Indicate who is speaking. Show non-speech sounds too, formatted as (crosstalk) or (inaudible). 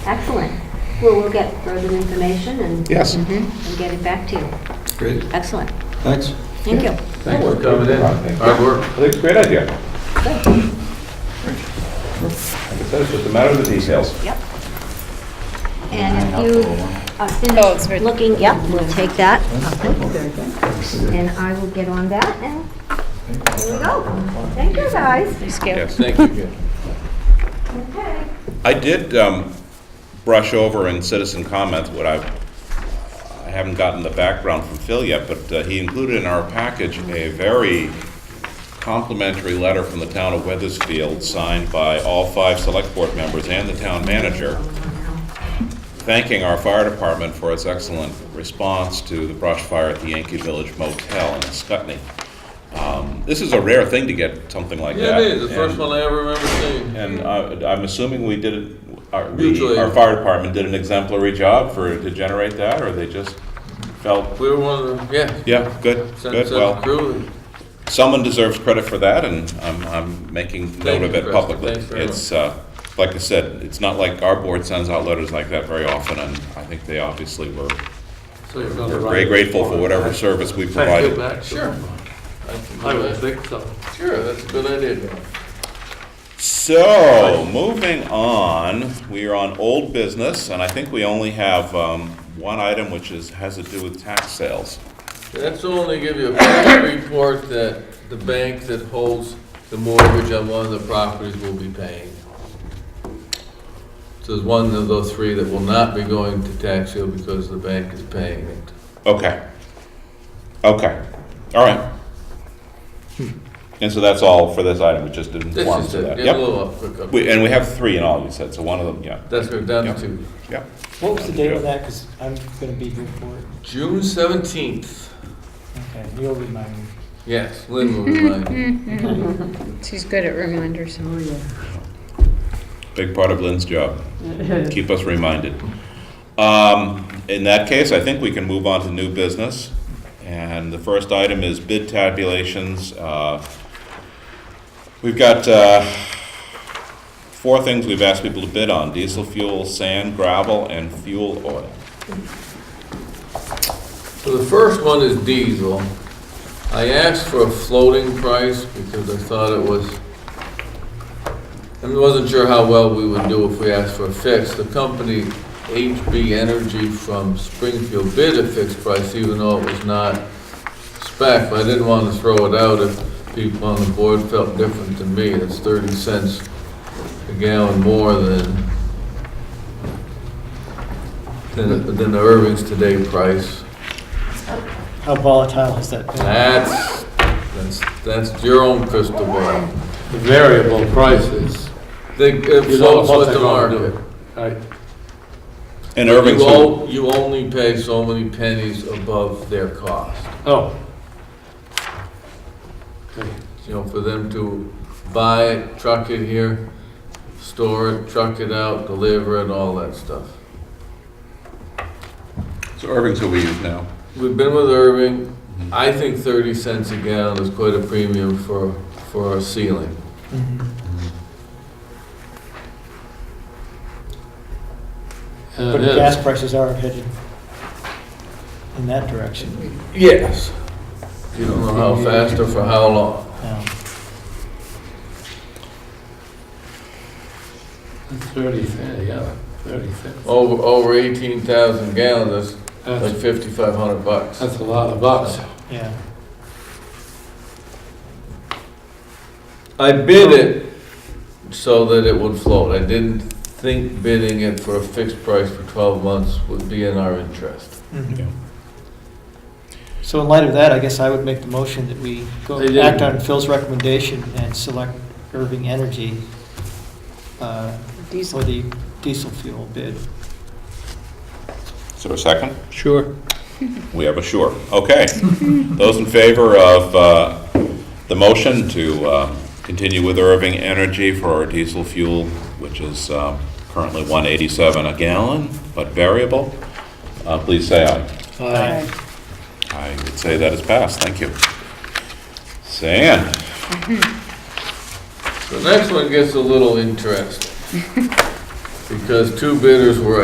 Speaker 1: Excellent. Well, we'll get further information and
Speaker 2: Yes.
Speaker 1: and get it back to you.
Speaker 3: Great,
Speaker 1: Excellent.
Speaker 3: thanks.
Speaker 1: Thank you.
Speaker 2: Thanks
Speaker 4: for coming in. Hard work.
Speaker 2: I think it's a great idea.
Speaker 1: Good.
Speaker 2: Like I said, it's just a matter of the details.
Speaker 1: Yep. And if you are
Speaker 5: Oh, it's right-
Speaker 1: finished looking, yep, we'll take that. And I will get on that and here we go. Thank you, guys.
Speaker 5: Scale.
Speaker 4: Thank you.
Speaker 1: Okay.
Speaker 6: I did um, brush over in citizen comments what I, I haven't gotten the background from Phil yet, but uh, he included in our package a very complimentary letter from the town of Weathersfield, signed by all five select board members and the town manager, thanking our fire department for its excellent response to the brush fire at the Yankee Village Motel in Scutney. Um, This is a rare thing to get something like
Speaker 4: Yeah,
Speaker 6: that.
Speaker 4: it is. The first
Speaker 6: and-
Speaker 4: one I ever remember seeing.
Speaker 6: and uh, I'm assuming we did, it- our, the-
Speaker 4: Mutually.
Speaker 6: our fire department did an exemplary job for, to generate that, or they just felt,
Speaker 4: We were one of the, yeah.
Speaker 6: yeah, good,
Speaker 4: Sent
Speaker 6: good,
Speaker 4: sent
Speaker 6: well,
Speaker 4: crew and-
Speaker 6: someone deserves credit for that, and I'm, I'm making note
Speaker 4: you,
Speaker 6: of it
Speaker 4: Preston.
Speaker 6: publicly.
Speaker 4: Thanks very
Speaker 6: It's, uh, like I said, it's not like our board sends out letters like that very often, and I think they obviously were,
Speaker 4: so you're gonna
Speaker 6: were
Speaker 4: write
Speaker 6: very
Speaker 4: it.
Speaker 6: grateful for whatever service we
Speaker 4: Thank you
Speaker 6: provided.
Speaker 4: back. Sure. I would think so. Sure, that's a good idea.
Speaker 6: So, moving on, we are on old business, and I think we only have, um, one item which is, has to do with tax sales.
Speaker 4: That's only give you a brief report that the bank that holds the mortgage on one of the properties will be paying. So there's one of those three that will not be going to tax you because the bank is paying it.
Speaker 6: Okay. Okay. All right. And so that's all for this item, we just didn't
Speaker 4: This
Speaker 6: want
Speaker 4: is
Speaker 6: to
Speaker 4: it,
Speaker 6: that.
Speaker 4: get a
Speaker 6: Yep.
Speaker 4: little off quick. up.
Speaker 6: We- And we have three in all, you said, so one of them, yeah,
Speaker 4: That's what we're down
Speaker 6: Yep.
Speaker 4: to.
Speaker 6: yeah.
Speaker 7: What was the date of that? Because I'm going to be here for it.
Speaker 4: June seventeenth.
Speaker 7: Okay, you'll remind me.
Speaker 4: Yes, Lynn will remind you.
Speaker 5: She's good at reminders.
Speaker 6: Big part of Lynn's job. Keep us reminded. Um, In that case, I think we can move on to new business. And the first item is bid tabulations. Uh, We've got uh, four things we've asked people to bid on: diesel fuel, sand, gravel, and fuel oil.
Speaker 4: So the first one is diesel. I asked for a floating price because I thought it was, I wasn't sure how well we would do if we asked for a fix. The company HB Energy from Springfield bid a fixed price even though it was not spec, but I didn't want to throw it out if people on the board felt different than me. It's 30 cents a gallon more than, than than the Irving's today price.
Speaker 7: How volatile has that been?
Speaker 4: That's, that's, that's your own crystal ball. The variable prices. They, it floats uh, with the market.
Speaker 6: And Irving's,
Speaker 4: You
Speaker 6: who-
Speaker 4: all, you only pay so many pennies above their cost.
Speaker 8: Oh. Uh,
Speaker 4: You know, for them to buy it, truck it here, store it, truck it out, deliver it, all that stuff.
Speaker 6: so Irving's who we use now.
Speaker 4: We've been with Irving. I think thirty cents a gallon is quite a premium for, for a ceiling.
Speaker 7: Mm-hmm.
Speaker 8: And
Speaker 7: But
Speaker 8: it
Speaker 7: gas
Speaker 8: is.
Speaker 7: prices are headed in that direction.
Speaker 4: Yes. You don't know how fast or for how long.
Speaker 7: now.
Speaker 8: Thirty, cent, yeah, thirty cents.
Speaker 4: Over, over eighteen thousand gallons, that's like
Speaker 8: That's,
Speaker 4: fifty-five hundred bucks.
Speaker 8: that's a lot of bucks.
Speaker 7: Yeah.
Speaker 4: I bid it so that it would float. I didn't think bidding it for a fixed price for twelve months would be in our interest.
Speaker 7: Mhm.
Speaker 6: Yeah.
Speaker 7: So in light of that, I guess I would make the motion that we go
Speaker 8: They did.
Speaker 7: act on Phil's recommendation and select Irving Energy uh, for the diesel fuel bid.
Speaker 6: Is there a second?
Speaker 8: Sure.
Speaker 6: We have a sure. Okay. Those in favor of uh, the motion to uh, continue with Irving Energy for our diesel fuel, which is uh, currently 187 a gallon, but variable, uh, please say aye. I would say that is passed. Thank you. Sand.
Speaker 4: (laughs) The next one gets a little interesting. because two bidders were